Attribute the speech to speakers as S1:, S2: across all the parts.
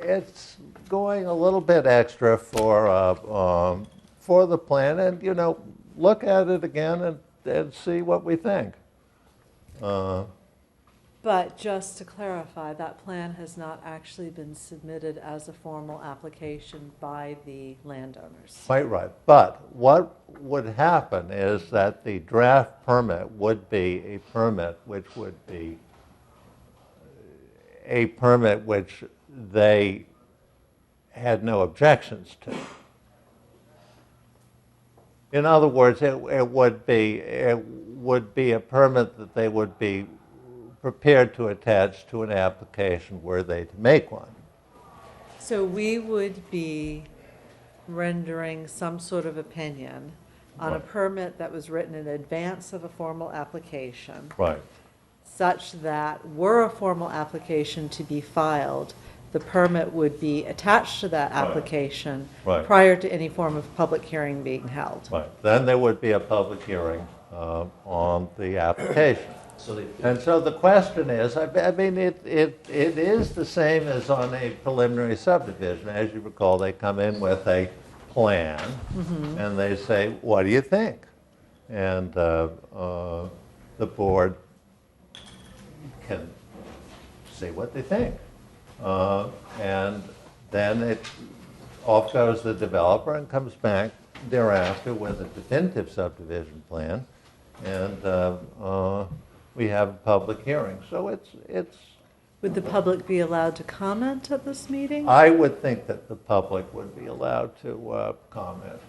S1: it's going a little bit extra for, uh, um, for the plan, and, you know, look at it again and, and see what we think.
S2: But just to clarify, that plan has not actually been submitted as a formal application by the landowners.
S1: Quite right. But what would happen is that the draft permit would be a permit which would be a permit which they had no objections to. In other words, it, it would be, it would be a permit that they would be prepared to attach to an application were they to make one.
S2: So we would be rendering some sort of opinion on a
S1: Right.
S2: permit that was written in advance of a formal application,
S1: Right.
S2: such that were a formal application to be filed, the permit would be attached to that application
S1: Right.
S2: prior to any form of public hearing being held.
S1: Right, then there would be a public hearing uh, on the application.
S3: So they,
S1: And so the question is, I I mean, it, it, it is the same as on a preliminary subdivision. As you recall, they come in with a plan,
S3: Mm-hmm.
S1: and they say, what do you think? And uh, uh, the board can say what they think. Uh, And then it, off goes the developer and comes back thereafter with a definitive subdivision plan, and uh, uh, we have a public hearing. So it's, it's,
S2: Would the public be allowed to comment at this meeting?
S1: I would think that the public would be allowed to uh, comment.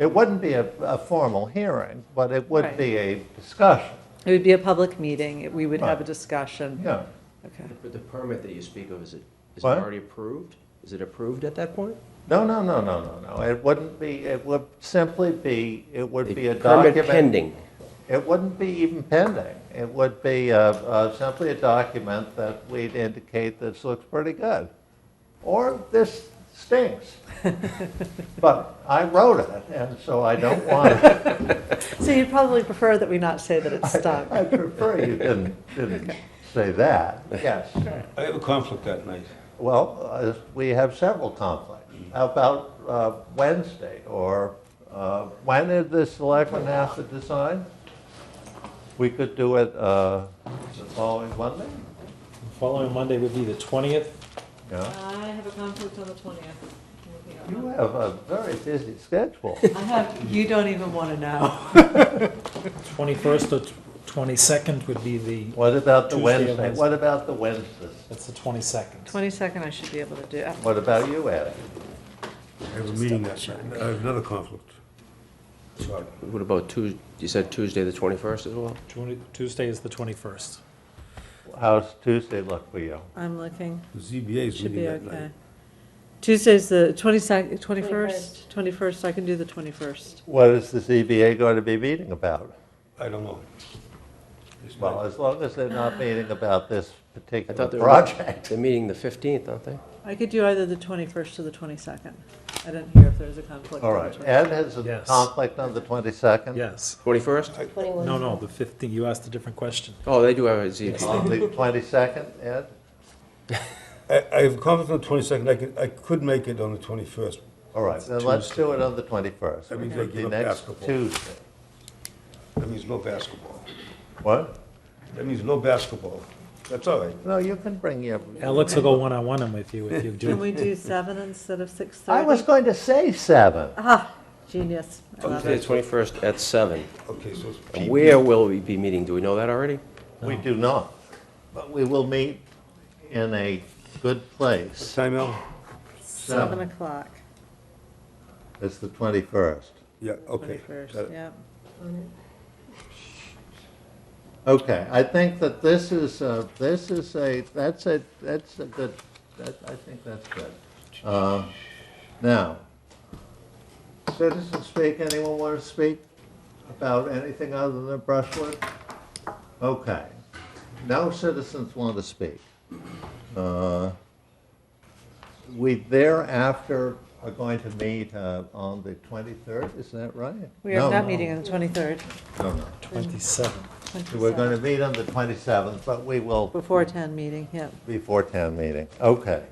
S1: It wouldn't be a a formal hearing, but it would
S2: Right.
S1: be a discussion,
S2: It would be a public meeting, It- we would have a
S1: Right.
S2: discussion.
S1: yeah.
S2: Okay.
S3: but the permit that you speak of, is it, is it
S1: What?
S3: already approved? Is it approved at that point?
S1: No, no, no, no, no, no. It wouldn't be, it would simply be, it would be a document.
S3: Permit pending.
S1: It wouldn't be even pending. It would be uh, uh, simply a document that we'd indicate this looks pretty good, or this stinks. But I wrote it, and so I don't want, to-
S2: So you'd probably prefer that we not say that it's
S1: I
S2: stuck.
S1: prefer you didn't, didn't say that, yes.
S4: I have a conflict that night.
S1: Well, uh, we have several conflicts. How about uh, Wednesday, or uh, when did the selectmen have to decide? We could do it uh, the following Monday?
S5: Following Monday would be the 20th.
S1: Yeah.
S2: I have a conflict on the 20th.
S1: You have a very busy schedule.
S2: I have, you don't even want to know.
S5: 21st or 22nd would be the,
S1: What about the
S5: Tuesday or
S1: Wednesday?
S5: Wednesday.
S1: What about the Wednesday?
S5: that's the 22nd.
S2: 22nd I should be able to do.
S1: What about you, Ed?
S4: I have a meeting that night. I have another conflict. So
S3: What about Tues, you said Tuesday, the 21st as well?
S5: Twen- Tuesday is the 21st.
S1: How's Tuesday look for you?
S2: I'm looking,
S4: the ZBA is
S2: should
S4: meeting
S2: be
S4: that
S2: okay.
S4: night.
S2: Tuesday's the 22nd, 21st? 21st, I can do the 21st.
S1: What is the ZBA going to be meeting about?
S4: I don't know. It's
S1: Well,
S4: not-
S1: as long as they're not meeting about this
S3: I
S1: particular
S3: thought they were,
S1: project.
S3: they're meeting the 15th, aren't they?
S2: I could do either the 21st or the 22nd. I didn't hear if there was a conflict.
S1: All
S2: on the
S1: right.
S2: 20th.
S1: Ed has a
S5: Yes.
S1: conflict on the 22nd?
S5: Yes.
S3: 21st?
S5: No, no, the 15th, you asked a different question.
S3: Oh, they do have a Z.
S1: On the 22nd, Ed?
S4: I, I have a conflict on the twenty-second. I could, I could make it on the twenty-first.
S1: All right, then let's do it on the 21st. which
S4: That means
S1: would
S4: they
S1: be
S4: give up
S1: next
S4: basketball.
S1: Tuesday.
S4: That means no basketball.
S1: What?
S4: That means no basketball. That's all right.
S1: No, you can bring your.
S5: Alex will go one-on-one I'm with you if you
S2: Can
S5: do.
S2: we do 7 instead of 6:30?
S1: I was going to say 7.
S2: Ah, genius. I love
S3: Tuesday,
S2: it.
S3: the 21st at 7.
S4: Okay, so it's
S3: And
S4: P-
S3: where will we be meeting? Do we know that already?
S1: We do not, but we will meet in a good place.
S4: Time out?
S2: Seven o'clock,
S1: It's the 21st.
S4: Yeah, okay.
S2: twenty-first,
S4: Got it.
S2: yeah.
S1: Okay, I think that this is, uh, this is a, that's a, that's a good, that, I think that's good. Um, Now, citizens speak, anyone want to speak about anything other than brushwood? Okay, no citizens want to speak. Uh, We thereafter are going to meet uh, on the 23rd, is that right?
S2: We are
S1: No,
S2: not
S1: no,
S2: meeting on the twenty-third.
S1: No, no.
S5: 27th.
S1: We're going to meet on the 27th, but we will
S2: Before town meeting, yeah.
S1: before town meeting. Okay.